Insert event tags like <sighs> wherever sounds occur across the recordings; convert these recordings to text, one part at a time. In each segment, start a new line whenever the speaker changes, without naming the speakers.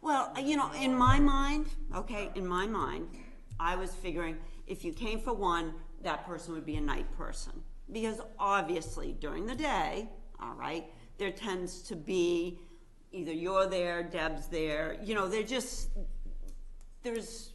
Well, you know, in my mind, okay, in my mind, I was figuring if you came for one, that person would be a night person. Because obviously during the day, all right, there tends to be either you're there, Deb's there, you know, they're just, there's,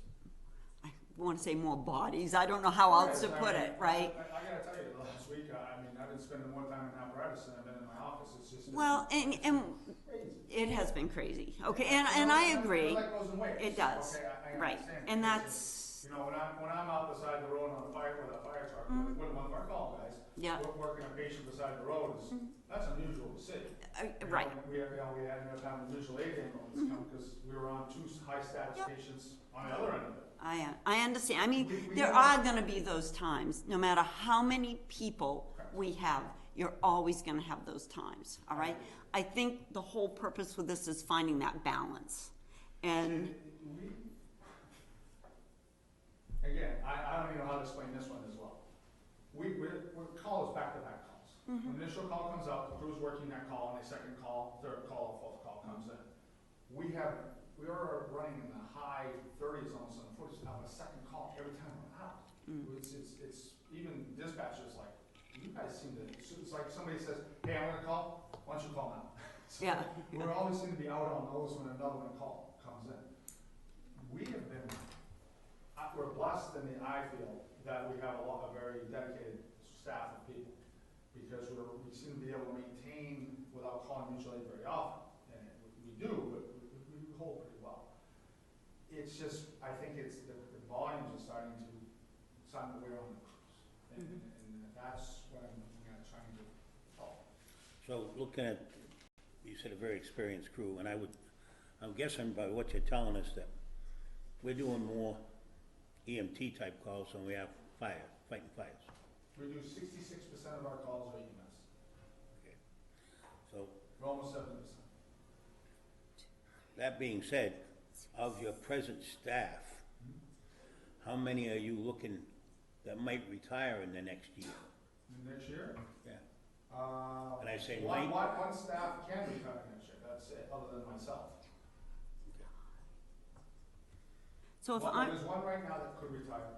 I want to say more bodies, I don't know how else to
Yes, I
put
mean,
it,
I,
right?
I gotta tell you, the last week, I, I mean, I've been spending more time in apparatus than I've been in my office, it's just. it's
Well, and, and
Crazy.
it has been crazy, okay, and, and I agree.
Like goes in waves.
It does,
Okay, I- I
right,
understand.
and
It's
that's,
just, You know, when I'm, when I'm out beside the road on a fire with a fire truck, with one of our call guys.
Mm-hmm. Yeah.
we're Working a patient beside the road is, that's unusual to see.
uh,
You know,
right. Mm-hmm.
We, had- you know, we had no time to usual aid ambulance come, because we were on two high status
Yep.
patients on the other end of it.
I, I understand, I mean,
We- we
there
know.
are gonna be those times, no matter how many people
Correct.
we have, you're always gonna have those times, all right? I think the whole purpose with this is finding that balance, and,
We- Again, I, I don't even know how to explain this one as well. We, we're, we're calls back-to-back calls. When the initial call comes out, the crew's working that call, and a second call, third call, fourth call comes in. We have, we are running in the high thirties, almost on the forties, of a second call every time we're out. It's, it's, it's, even dispatchers like, you guys seem to, so it's like somebody says, hey, I want to call, why don't you call now? <laughs> So
yeah,
We're always seem to be out on those when another one call comes in. We have been, I- we're blessed in the I feel that we have a lot, a very dedicated staff of people. Because we're, we seem to be able to maintain without calling mutual aid very often, and we do, but we, we we hold pretty well. It's just, I think it's, the, the volumes are starting to, starting to wear on the crews. And, and that's what I'm looking at trying to help.
So looking at, you said a very experienced crew, and I would, I'm guessing by what you're telling us that we're doing more EMT type calls than we have fire, fighting fires.
We do sixty-six percent of our calls are E EMS.
So
We're almost seventy percent.
that being said, of your present staff, how many are you looking that might retire in the next year?
And next year,
Yeah.
uh.
And I say
One,
might.
one, one staff can retire next year, that's it, other than myself.
so if
Well,
I'm,
There's one right now that could retire.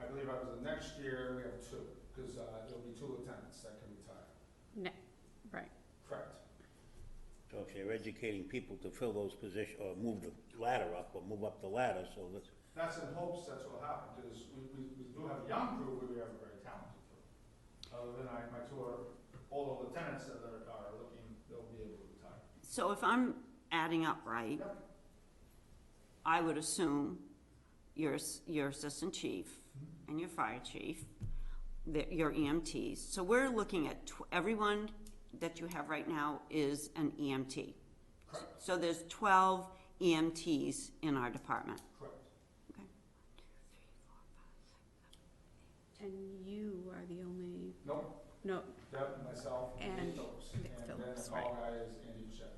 I believe I was, next year, we have two, because, uh, there'll be two lieutenants that can retire.
Ne- right.
Correct.
So if you're educating people to fill those positions, or move the ladder up, or move up the ladder, so that's,
That's in hopes that's what'll happen, because we, we, we do have a young crew, but we have a very talented crew. Other than I, my two are older lieutenants that are, are looking, they'll be able to retire.
so if I'm adding up right, I would assume your, s- your assistant chief and your fire chief, the- your EMTs. So we're looking at, tw- everyone that you have right now is an E EMT.
Correct,
So there's twelve EMTs in our department.
correct.
And you are the only,
Nope,
no,
Deb, myself,
And
Nick Phillips,
Nick
and then
Phillips,
the call guy is Andy Duchette.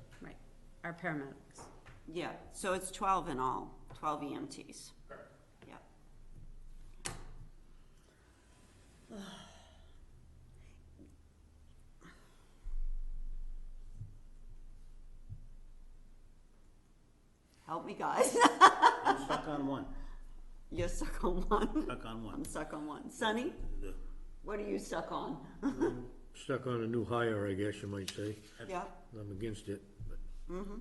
our paramedics.
Yeah, so it's twelve in all, twelve EMTs.
Correct.
Yeah. <sighs> Help me, guys.
I'm stuck on one,
<laughs> You're stuck on one.
stuck on one.
I'm stuck on one. Sonny,
The-
what are you stuck on?
Stuck on a new hire, I guess you might say.
Yeah,
I'm against it. but
mm-hmm.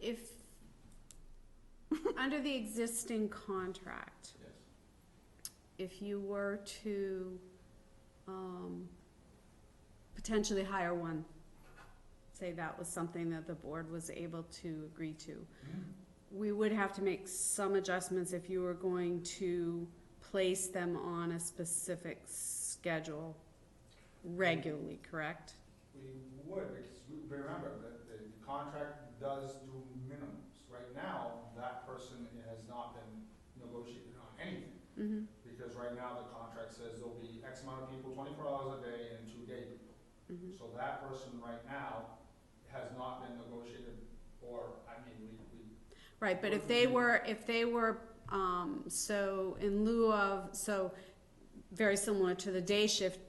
If, under the existing contract,
Yes.
if you were to, um, potentially hire one, say that was something that the board was able to agree to, we would have to make some adjustments if you were going to place them on a specific schedule regularly, correct?
We would, because we remember that the contract does do minimums. Right now, that person has not been negotiated on anything.
Mm-hmm.
Because right now, the contract says there'll be X amount of people, twenty-four hours a day and two day people.
Mhm.
So that person right now has not been negotiated, or, I mean, we, we,
Right, but if they were, if they were, um, so in lieu of, so very similar to the day shift